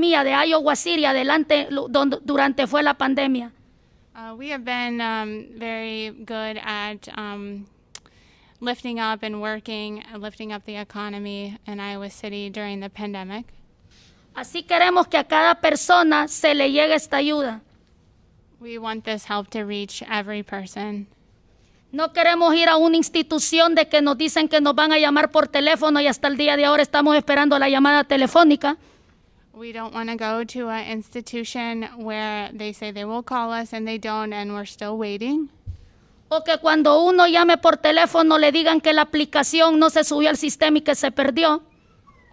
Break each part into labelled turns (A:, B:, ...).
A: mía de Iowa City adelante lo- don- durante fue la pandemia.
B: Uh, we have been um, very good at um, lifting up and working, uh, lifting up the economy in Iowa City during the pandemic.
A: Así queremos que a cada persona se le llegue esta ayuda.
B: We want this help to reach every person.
A: No queremos ir a una institución de que nos dicen que nos van a llamar por teléfono y hasta el día de ahora estamos esperando la llamada telefónica.
B: We don't want to go to an institution where they say they will call us and they don't, and we're still waiting.
A: O que cuando uno llame por teléfono le digan que la aplicación no se subió al sistema y que se perdió.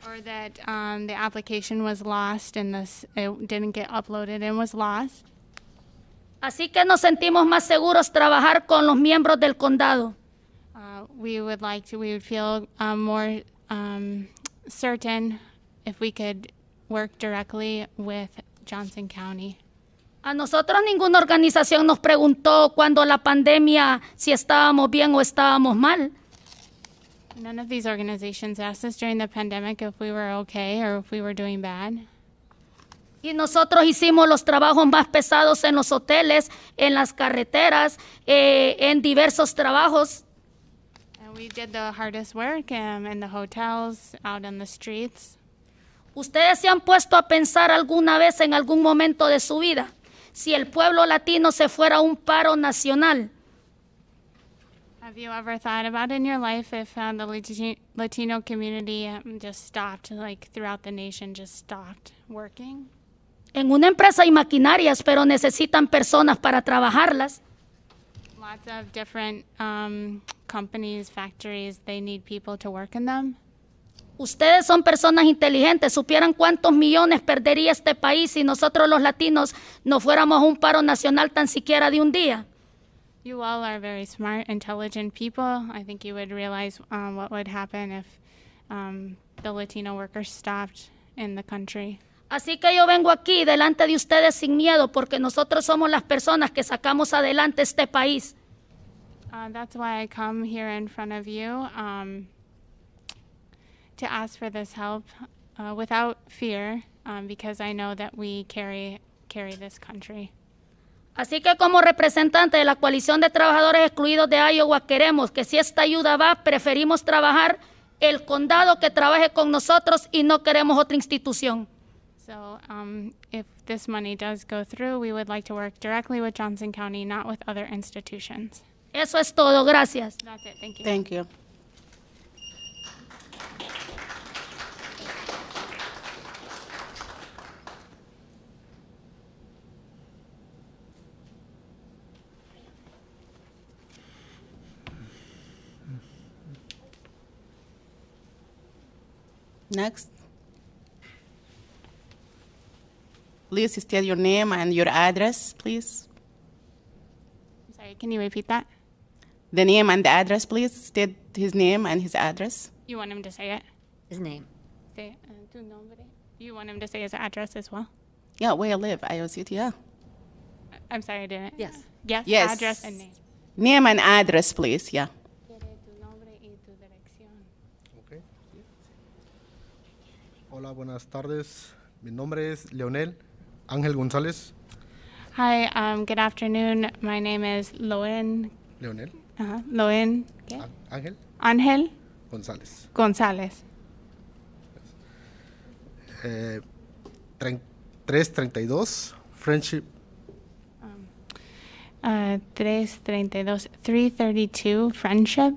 B: Or that um, the application was lost and this it didn't get uploaded and was lost.
A: Así que nos sentimos más seguros trabajar con los miembros del condado.
B: Uh, we would like to. We would feel um, more um, certain if we could work directly with Johnson County.
A: A nosotros ninguna organización nos preguntó cuando la pandemia si estábamos bien o estábamos mal.
B: None of these organizations asked us during the pandemic if we were okay or if we were doing bad.
A: Y nosotros hicimos los trabajos más pesados en los hoteles, en las carreteras, eh, en diversos trabajos.
B: And we did the hardest work um, in the hotels, out on the streets.
A: ¿Ustedes se han puesto a pensar alguna vez en algún momento de su vida si el pueblo latino se fuera a un paro nacional?
B: Have you ever thought about in your life if uh, the Lati- Latino community um, just stopped, like throughout the nation, just stopped working?
A: En una empresa hay maquinarias, pero necesitan personas para trabajarlas.
B: Lots of different um, companies, factories, they need people to work in them.
A: Ustedes son personas inteligentes, supieran cuántos millones perdería este país si nosotros los latinos no fuéramos a un paro nacional tan siquiera de un día.
B: You all are very smart, intelligent people. I think you would realize um, what would happen if um, the Latino workers stopped in the country.
A: Así que yo vengo aquí delante de ustedes sin miedo porque nosotros somos las personas que sacamos adelante este país.
B: Uh, that's why I come here in front of you um, to ask for this help uh, without fear, um, because I know that we carry carry this country.
A: Así que como representante de la coalición de trabajadores excluidos de Iowa queremos que si esta ayuda va, preferimos trabajar el condado que trabaje con nosotros y no queremos otra institución.
B: So, um, if this money does go through, we would like to work directly with Johnson County, not with other institutions.
A: Eso es todo, gracias.
B: That's it. Thank you.
C: Thank you. Next. Please state your name and your address, please.
B: Sorry, can you repeat that?
C: The name and the address, please. State his name and his address.
B: You want him to say it?
D: His name.
B: Say uh, tu nombre. You want him to say his address as well?
C: Yeah, where I live, Iowa City, yeah.
B: I- I'm sorry, I didn't.
D: Yes.
B: Yes.
C: Yes.
B: Address and name.
C: Name and address, please, yeah.
E: Ok. Hola, buenas tardes. Mi nombre es Leonel Ángel González.
B: Hi, um, good afternoon. My name is Loen,
E: Leonel
B: uh, Loen ¿qué?
E: Á- Ángel
B: Ángel
E: González.
B: González.
E: Eh, tren- 332 Friendship
B: Uh, 332, 332 Friendship.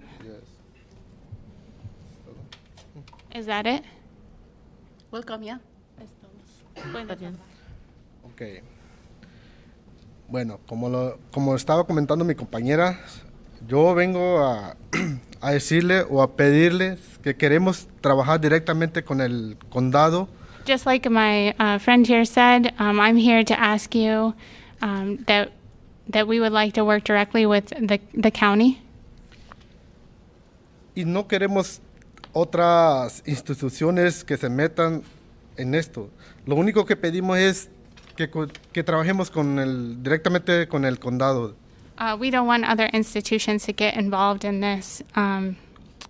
B: Is that it?
C: Welcome, yeah.
E: Ok. Bueno, como, lo, como estaba comentando mi compañera, yo vengo a, a decirle o a pedirles que queremos trabajar directamente con el condado
B: Just like my uh, friend here said, um, I'm here to ask you um, that that we would like to work directly with the, the county.
E: y no queremos otras instituciones que se metan en esto. Lo único que pedimos es que, co- que trabajemos con el, directamente con el condado.
B: Uh, we don't want other institutions to get involved in this. Um,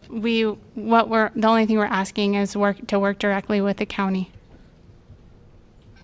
B: we what we're the only thing we're asking is work to work directly with the county.